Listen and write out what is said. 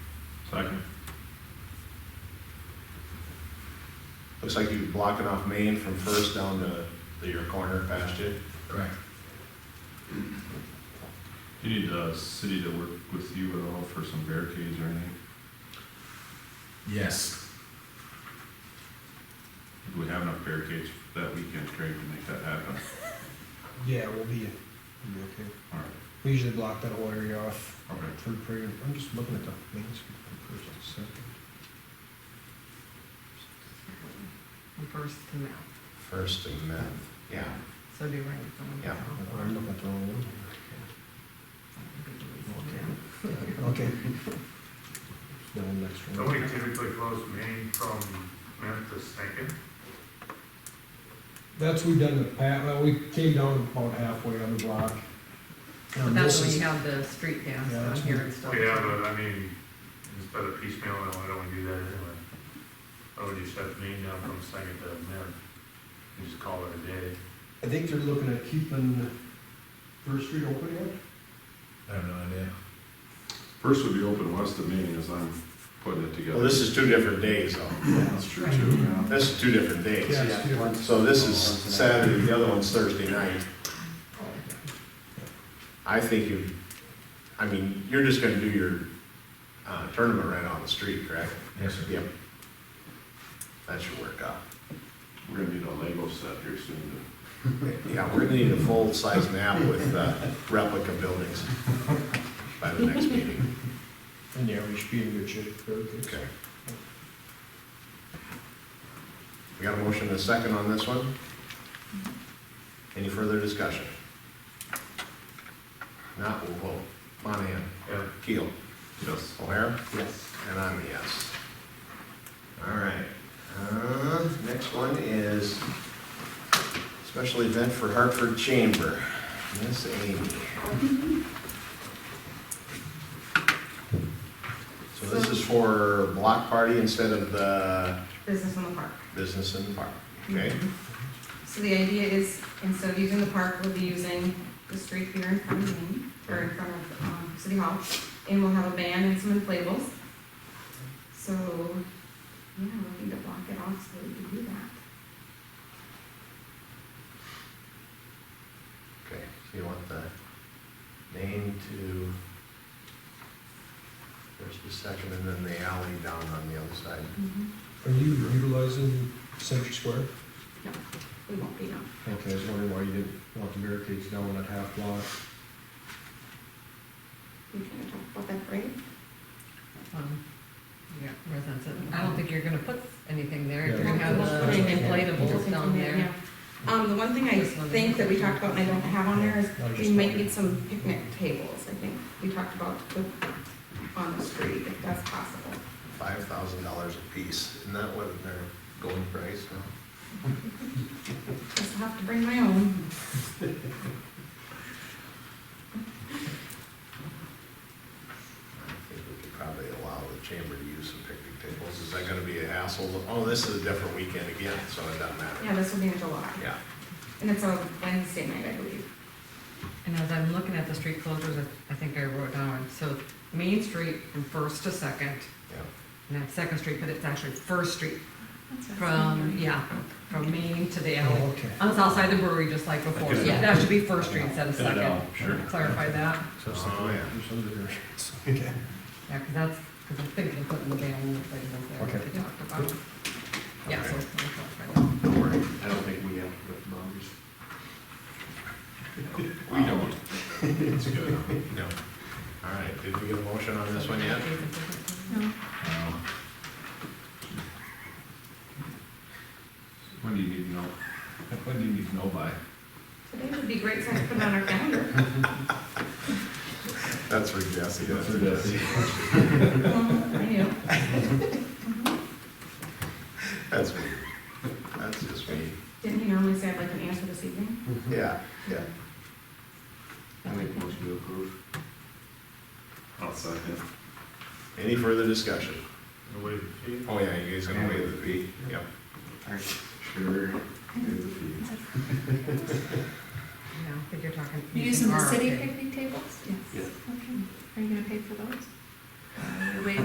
Second. Looks like you're blocking off Main from First down to the- your corner past you. Correct. You need the city to work with you at all for some barricades or anything? Yes, Do we have enough barricades that weekend, Craig, to make that happen? Yeah, we'll be, we'll be okay. All We usually block that whole area off right, okay. for prayer. I'm just looking at the main street for first and second. First and now, First and then, yeah. so do you write it down? Yeah. Oh, I'm looking at the wrong one. Okay. No, next So one. we typically close Main from Memphis Second. That's what we done in the past, well, we came down about halfway on the block. But Um, that's this when is- you have the street dance Yeah, on that's here when- and stuff. Yeah, but I mean, instead of piecemeal, why don't we do that anyway? Why would you shut Main down from Second to Mem? You just call it a day. I think they're looking at keeping First Street open yet? I have no idea. First would be open west of Main as I'm putting it together. Well, this is two different days though. That's true too, yeah. This is two different days. Yeah, it's two. So this is Saturday, the other one's Thursday night. I think you, I mean, you're just gonna do your, uh, tournament right on the street, correct? Yes, sir. Yep. That should work out. We're gonna need a Lego set here soon Yeah, we're gonna need a full-size map with, uh, replica buildings by the next meeting. And yeah, we should be in good shape. very good. Okay. We got a motion and a second on this one? Any further discussion? Not, we'll vote. Monahan? Yeah, Keel? to, yes. O'Hara? Yes. And I'm a yes. All right, uh, next one is special event for Hartford Chamber. Miss Amy. So this is for block party instead of the Business in the park. business in the park, Mm-hmm. okay? So the idea is, instead of using the park, we'll be using the street here in front of me, or in front of, um, City Hall, and we'll have a band and some inflatables. So, yeah, we'll need to block it off so that we can do that. Okay, so you want the name to, there's the second, and then the alley down on the other side. Mm-hmm. Are you utilizing Century Square? We won't be, no. Okay, I was wondering why you didn't want the barricades down at half block. We can talk about that, right? Um, yeah, residents, I don't think you're gonna put anything there, Yeah. you're gonna have Well, the put in inflatables down there. Um, the one thing I think that we talked about and I don't have on there is I was we just might wondering. need some picnic tables, I think. We talked about the, on the street, if that's possible. five thousand dollars a piece, isn't that what their going price now? Just have to bring my own. I think we could probably allow the chamber to use some picnic tables, is that gonna be a hassle? Oh, this is a different weekend again, so it doesn't matter. Yeah, this will be in July. Yeah, And it's a Wednesday night, I believe. And as I'm looking at the street closures, I- I think I wrote down, so Main Street from First to Second, yeah, and that's Second Street, but it's actually First Street from, From, yeah, from Main to the Oh, alley. okay. Um, On the south side of the brewery, just like before, Okay. yeah, that should be First Street instead of Pin it Second. down, Sure. Clarify that, So it's the Oh, yeah. there's other variations. Okay. yeah, because that's, because I'm thinking of putting the band and the inflatables there, Okay. like we talked about. Yeah, so. Okay. we'll clarify that. don't worry. I don't think we have to put boundaries. We don't. It's good. No. All right, did we get a motion on this one yet? No. Um, When do you need to know, when do you need to know by? Today would be great time to put it on our calendar. That's for Jesse. That's for Jesse. Um, I know. That's me. That's just me. Didn't he normally say I'd like an answer this evening? Yeah, yeah. I make motion to approve. I'll second. Any further discussion? the way the fee. Oh, yeah, you guys gonna waive the fee? Yep. Sure. Here's the fee. No, I think you're talking. Using the our city thing. picnic tables? Yes. Okay. Are you gonna pay for those? Wait,